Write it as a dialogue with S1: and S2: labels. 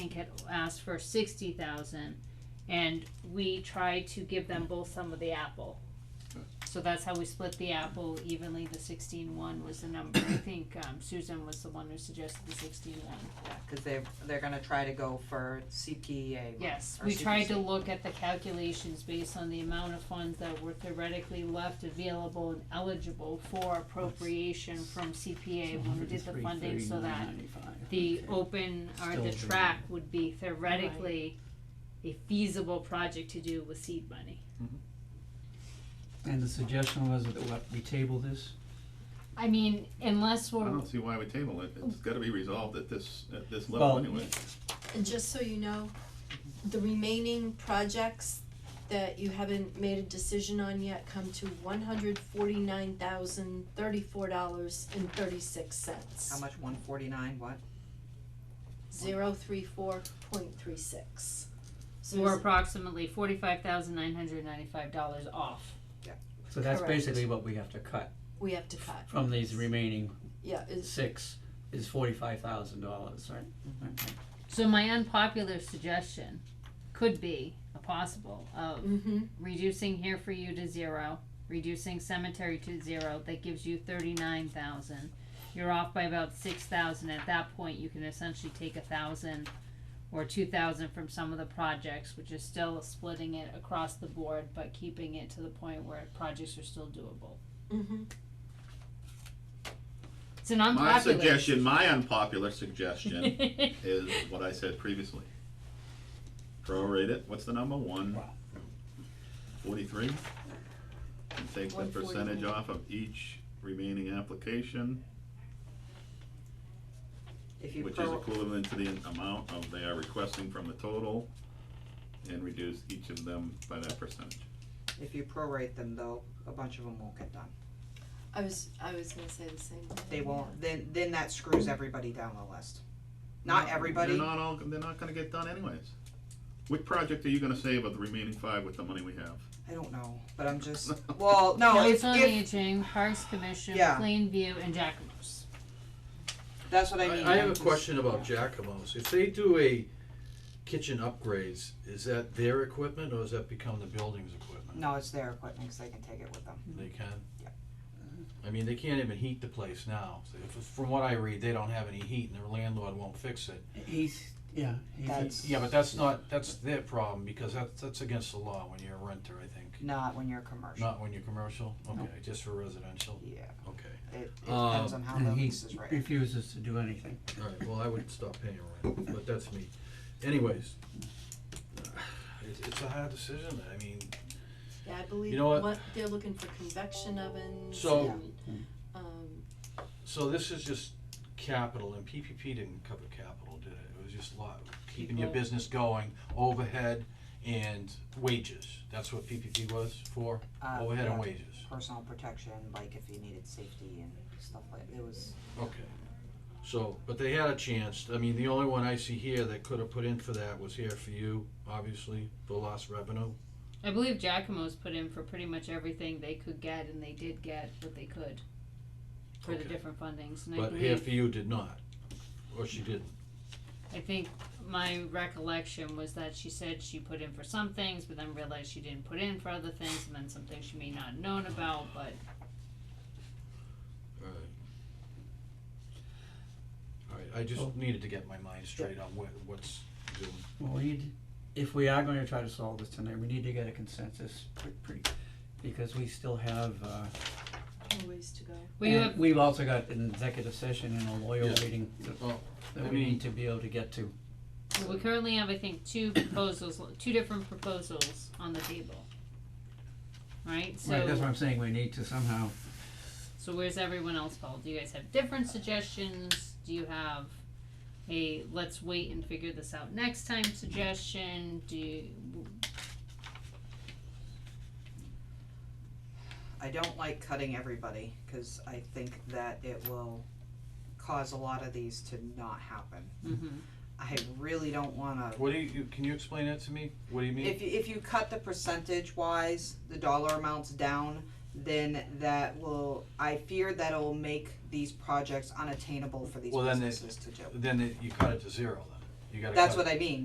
S1: think had asked for sixty thousand, and we tried to give them both some of the apple. So that's how we split the apple evenly, the sixteen one was the number, I think, um, Susan was the one who suggested the sixteen one.
S2: Yeah, cause they're, they're gonna try to go for CPA.
S1: Yes,
S2: Or
S1: we tried to
S2: CPC.
S1: look at the calculations based on the amount of funds that were theoretically left available and eligible for appropriation from CPA when we did the funding, so that the open or
S3: Still
S1: the
S3: doable.
S1: track would be theoretically a feasible project to do with seed money.
S3: And the suggestion was that what, we table this?
S1: I mean, unless
S4: I
S1: we're,
S4: don't see why we table it, it's gotta be resolved at this, at this
S3: Well-
S4: level anyway.
S5: And just so you know, the remaining projects that you haven't made a decision on yet come to one hundred forty-nine thousand thirty-four dollars and thirty-six
S2: How
S5: cents.
S2: much, one forty-nine, what?
S5: Zero three four point three six. So
S1: we're
S5: there's-
S1: approximately forty-five thousand nine hundred ninety-five dollars off.
S3: So that's
S5: Correct.
S3: basically what we have to cut
S5: we have to cut,
S3: from these remaining
S5: yeah, is,
S3: six is forty-five thousand dollars, right? Okay.
S1: So my unpopular suggestion could be a possible um, of
S5: mm-hmm,
S1: reducing here for you to zero, reducing cemetery to zero, that gives you thirty-nine thousand. You're off by about six thousand, at that point, you can essentially take a thousand or two thousand from some of the projects, which is still splitting it across the board, but keeping it to the point where projects are still doable.
S5: mm-hmm,
S1: It's an
S4: My
S1: unpopular.
S4: suggestion, my unpopular suggestion is what I said previously. Prorate it, what's the number, one forty-three? And take the percentage
S5: 143.
S4: off of each remaining application,
S2: If you
S4: which is
S2: pro,
S4: equivalent to the amount of they are requesting from the total, and reduce each of them by that percentage.
S2: if you prorate them though, a bunch of them won't get done.
S5: I was, I was gonna say the same thing.
S2: They won't, then, then that screws everybody down the list. Not
S4: No,
S2: everybody,
S4: They're not all, they're not gonna get done anyways. Which project are you gonna save of the remaining five with the money we have?
S2: I don't know, but I'm just, well, no, if,
S1: Council on
S2: if,
S1: Aging, Parks Commission,
S2: Yeah.
S1: Plainview, and Jacamos.
S2: that's what I mean.
S6: I
S2: I'm
S6: have a
S2: just-
S6: question about Jacomos. If they do a kitchen upgrades, is that their equipment or does that become the building's equipment?
S2: No, it's their equipment, cause they can take it with them.
S6: They can?
S2: Yeah.
S6: I mean, they can't even heat the place now. So if- From what I read, they don't have any heat and their landlord won't fix it.
S3: He's, yeah,
S2: That's-
S3: he's,
S6: Yeah, but that's not, that's their problem because that's, that's against the law when you're a renter, I think.
S2: Not when you're commercial.
S6: Not when you're commercial? Okay, just for residential?
S2: Yeah,
S6: Okay.
S2: it, it
S6: Um,
S2: depends on how the
S3: and he
S2: lease is written.
S3: refuses to do anything.
S6: All right, well, I would stop paying rent, but that's me. Anyways, it's, it's a hard decision. I mean,
S5: Yeah, I believe,
S6: You know what?
S5: what, they're looking for convection ovens
S6: So-
S5: and, um,
S6: So this is just capital, and PPP didn't cover capital, did it? It was just lot, keeping your
S1: People.
S6: business going, overhead and wages. That's what PPP was for,
S2: Uh,
S6: overhead
S2: yeah,
S6: and wages.
S2: Personal protection, like if you needed safety and stuff like, it was,
S6: Okay. So, but they had a chance. I mean, the only one I see here that could have put in for that was here for you, obviously, for lost revenue.
S1: I believe Giacomo's put in for pretty much everything they could get, and they did get what they could for the
S6: Okay.
S1: different fundings. And I
S6: But here
S1: believe,
S6: for you did not, or she didn't.
S1: I think my recollection was that she said she put in for some things, but then realized she didn't put in for other things, and then some things she may not have known about. But
S6: All right. All right, I just needed to get my mind straight on what, what's doing.
S3: Well, we need, if we are gonna try to solve this tonight, we need to get a consensus pretty, pretty, because we still have, uh,
S5: a ways to go.
S1: well, you
S3: and
S1: have
S3: we've also got an executive session and a lawyer
S6: Yeah.
S3: waiting that-
S6: Oh, I
S3: that we
S6: mean-
S3: need to be able to get to.
S1: we currently have I think two proposals, two different proposals on the table. Right. So
S3: Right, that's what I'm saying, we need to somehow
S1: So where's everyone else called? Do you guys have different suggestions? Do you have a let's wait and figure this out next time suggestion? Do you,
S2: I don't like cutting everybody, cause I think that it will cause a lot of these to not happen.
S1: mhm.
S2: I really don't wanna,
S6: What do you- you, can you explain that to me? What do you mean?
S2: if you, if you cut the percentage wise, the dollar amounts down, then that will, I fear that'll make these projects unattainable for these
S6: Well, then it-
S2: businesses to do.
S6: Then it- you cut it to zero then. You gotta
S2: That's
S6: cut-
S2: what I mean,